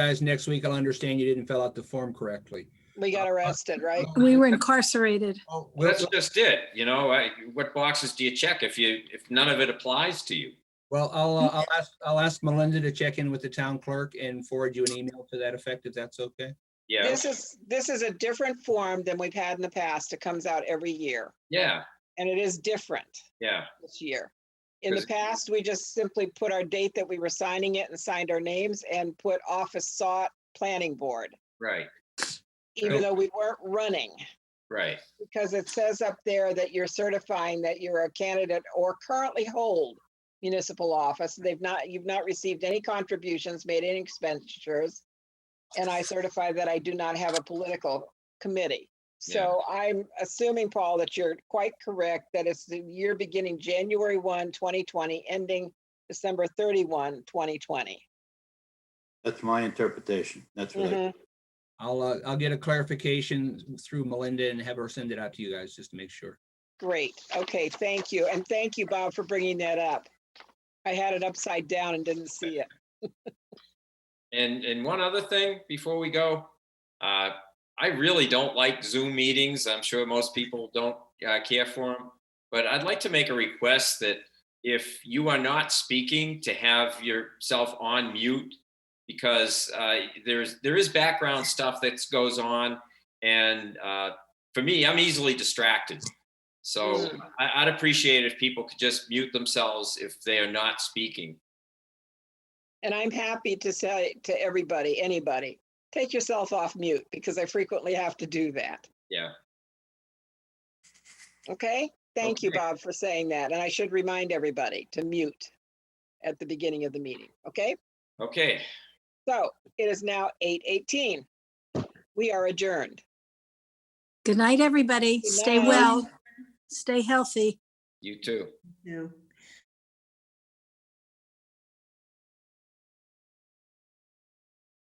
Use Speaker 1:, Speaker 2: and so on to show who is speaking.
Speaker 1: guys next week. I'll understand you didn't fill out the form correctly.
Speaker 2: We got arrested, right?
Speaker 3: We were incarcerated.
Speaker 1: Oh,
Speaker 4: Well,
Speaker 1: well,
Speaker 4: that's just it, you know, I, what boxes do you check if you, if none of it applies to you?
Speaker 1: well, I'll, uh, I'll ask, I'll ask Melinda to check in with the town clerk and forward you an email to that effect, if that's okay.
Speaker 4: Yeah,
Speaker 2: This is, this is a different form than we've had in the past. It comes out every year
Speaker 4: yeah,
Speaker 2: and it is different
Speaker 4: yeah,
Speaker 2: this year. In the
Speaker 4: Because-
Speaker 2: past, we just simply put our date that we were signing it and signed our names and put office sought planning board,
Speaker 4: right,
Speaker 2: even
Speaker 1: Right.
Speaker 2: though we weren't running.
Speaker 4: right,
Speaker 2: Because it says up there that you're certifying that you're a candidate or currently hold municipal office. They've not, you've not received any contributions, made any expenditures. And I certify that I do not have a political committee. So I'm assuming, Paul, that you're quite correct, that it's the year beginning January 1, 2020, ending December 31, 2020.
Speaker 5: That's my interpretation. That's what I,
Speaker 2: Mhm.
Speaker 1: I'll, uh, I'll get a clarification through Melinda and have her send it out to you guys, just to make sure.
Speaker 2: Great. Okay, thank you. And thank you, Bob, for bringing that up. I had it upside down and didn't see it.
Speaker 4: And, and one other thing before we go, uh, I really don't like Zoom meetings. I'm sure most people don't uh, care for them. But I'd like to make a request that if you are not speaking, to have yourself on mute because uh, there's, there is background stuff that goes on. And uh, for me, I'm easily distracted. So I, I'd appreciate if people could just mute themselves if they are not speaking.
Speaker 2: And I'm happy to say to everybody, anybody, take yourself off mute because I frequently have to do that.
Speaker 4: Yeah.
Speaker 2: Okay, thank you,
Speaker 4: Okay.
Speaker 2: Bob, for saying that. And I should remind everybody to mute at the beginning of the meeting, okay?
Speaker 4: Okay.
Speaker 2: So it is now 8:18. We are adjourned.
Speaker 3: Good night, everybody.
Speaker 2: Good
Speaker 3: Stay
Speaker 2: night.
Speaker 3: well, stay healthy.
Speaker 4: You too.
Speaker 6: Yeah.